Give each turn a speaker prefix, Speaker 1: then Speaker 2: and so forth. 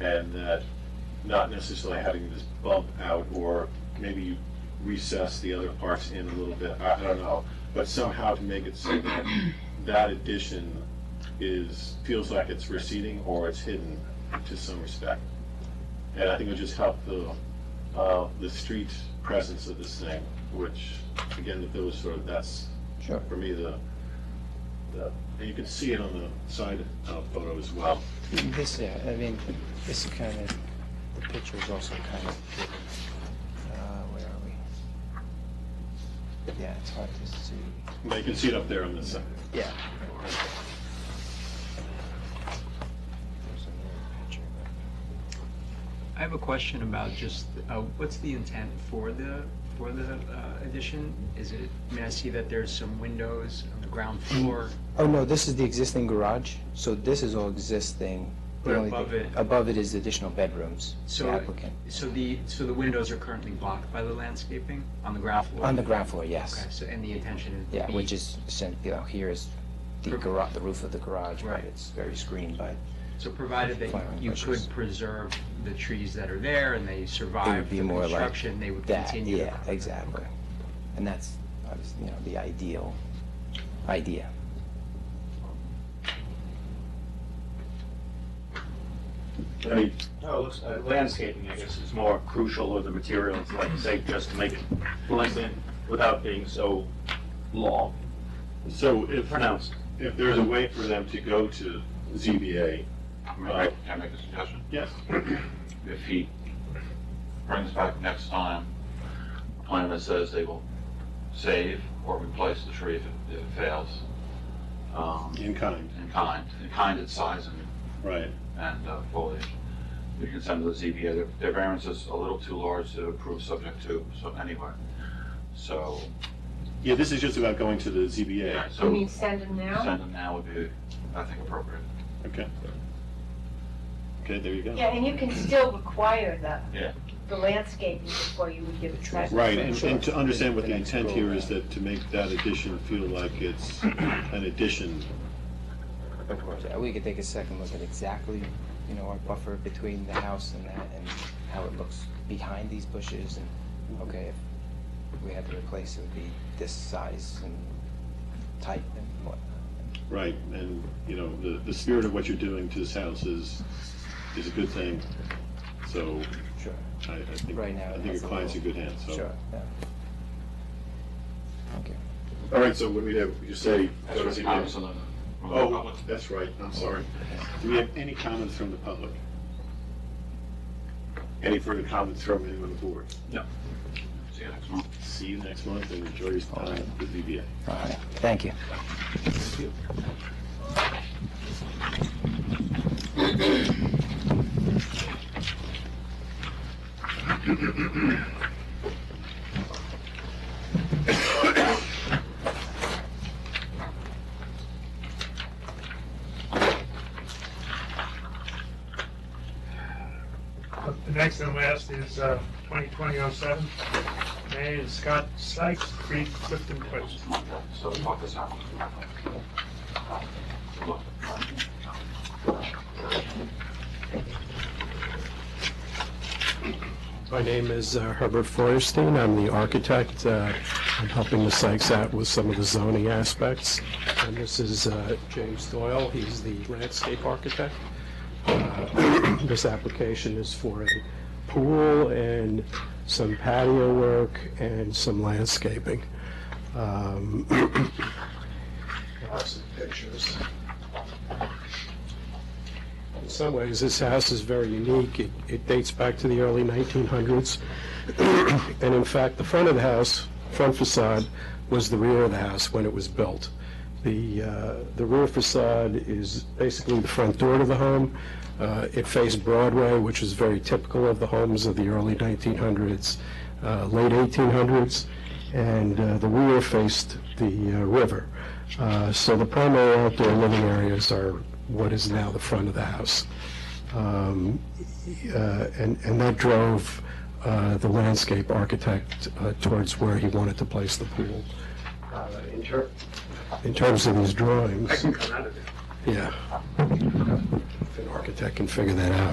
Speaker 1: and that not necessarily having this bump out, or maybe you recess the other parts in a little bit, I I don't know, but somehow to make it so that that addition is, feels like it's receding or it's hidden to some respect. And I think it would just help the, uh, the street presence of this thing, which, again, the village sort of, that's,
Speaker 2: Sure.
Speaker 1: for me, the, the, and you can see it on the side uh, photo as well.
Speaker 2: This, yeah, I mean, this is kind of, the picture is also kind of, uh, where are we? Yeah, it's hard to see.
Speaker 1: But you can see it up there on this side.
Speaker 2: Yeah. There's another picture,
Speaker 3: I have a question about just, uh, what's the intent for the, for the uh, addition? Is it, I mean, I see that there's some windows on the ground floor,
Speaker 2: but- Oh, no, this is the existing garage, so this is all existing. The
Speaker 3: But
Speaker 2: only
Speaker 3: above
Speaker 2: thing-
Speaker 3: it-
Speaker 2: Above it is additional bedrooms, the
Speaker 3: so,
Speaker 2: applicant.
Speaker 3: so the, so the windows are currently blocked by the landscaping on the ground floor?
Speaker 2: On the ground floor,
Speaker 3: Okay,
Speaker 2: yes.
Speaker 3: so, and the intention is? to
Speaker 2: Yeah,
Speaker 3: be-
Speaker 2: which is, sent- you know, here is the
Speaker 3: Per-
Speaker 2: garage, the roof of the garage, but
Speaker 3: Right.
Speaker 2: it's very screened by,
Speaker 3: So provided that
Speaker 2: Flowering
Speaker 3: you
Speaker 2: bushes.
Speaker 3: could preserve the trees that are there and they
Speaker 2: it would
Speaker 3: survive the
Speaker 2: be more like
Speaker 3: construction, they would
Speaker 2: that,
Speaker 3: continue? to-
Speaker 2: yeah, exactly. And that's, obviously, you know, the ideal idea.
Speaker 4: I mean, no, it looks, uh, landscaping, I guess, is more crucial or the materials, like, say, just to make it pleasant without being so long,
Speaker 1: So if,
Speaker 4: pronounced.
Speaker 1: if there's a way for them to go to ZBA,
Speaker 5: May I- Can I make a suggestion?
Speaker 1: yes,
Speaker 5: If he brings back next time a plan that says they will save or replace the tree if it- if it fails, um,
Speaker 1: in kind,
Speaker 5: in kind, in kind its size and,
Speaker 1: right.
Speaker 5: and uh, foliage, we can send to the ZBA. Their- Their variance is a little too large to approve subject to, so anyway. So,
Speaker 1: Yeah, this is just about going to the ZBA,
Speaker 5: so
Speaker 6: You mean send them now?
Speaker 5: send them now would be, I think, appropriate.
Speaker 1: okay. Okay, there you go.
Speaker 6: Yeah, and you can still require the,
Speaker 5: Yeah.
Speaker 6: the landscaping before you would give a traffic.
Speaker 1: Right, and, and to understand what the
Speaker 2: The next
Speaker 1: intent here is
Speaker 2: program.
Speaker 1: that to make that addition feel like it's an addition,
Speaker 2: Of course. We could take a second look at exactly, you know, our buffer between the house and that, and how it looks behind these bushes, and, okay, if we had to replace, it would be this size and type and whatnot.
Speaker 1: right? And, you know, the, the spirit of what you're doing to this house is, is a good thing, so
Speaker 2: Sure,
Speaker 1: I, I think,
Speaker 2: Right now,
Speaker 1: I
Speaker 2: it
Speaker 1: think
Speaker 2: has
Speaker 1: your
Speaker 2: a
Speaker 1: client's in
Speaker 2: little-
Speaker 1: good hands, so.
Speaker 2: sure, yeah. Okay.
Speaker 1: All right, so what do we have, you say, go to ZBA?
Speaker 5: Absolutely.
Speaker 1: Oh, that's right, I'm sorry. Do we have any comments from the public? Any further comments from anyone on the board?
Speaker 5: See you next month.
Speaker 1: See you next month and enjoy your time at the ZBA.
Speaker 2: All right, thank you.
Speaker 7: The next and last is uh, 2020-07, May is Scott Sykes, Creed Clifton Place.
Speaker 5: So talk this out. Look,
Speaker 8: My name is uh, Herbert Feuerstein. I'm the architect. Uh, I'm helping the Sykes out with some of the zoning aspects. And this is uh, James Doyle. He's the landscape architect. Uh, This application is for a pool and some patio work and some landscaping. Um, I have Some pictures. In some ways, this house is very unique. It- It dates back to the early 1900s. And in fact, the front of the house, front facade, was the rear of the house when it was built. The uh, the rear facade is basically the front door to the home. Uh, It faced Broadway, which is very typical of the homes of the early 1900s, uh, late 1800s, and uh, the rear faced the uh, river. Uh, So the primary outdoor living areas are what is now the front of the house. Um, uh, And and that drove uh, the landscape architect uh, towards where he wanted to place the pool. Uh, In ter- in terms of these drawings,
Speaker 7: Come out of there.
Speaker 8: yeah. If an architect can figure that out.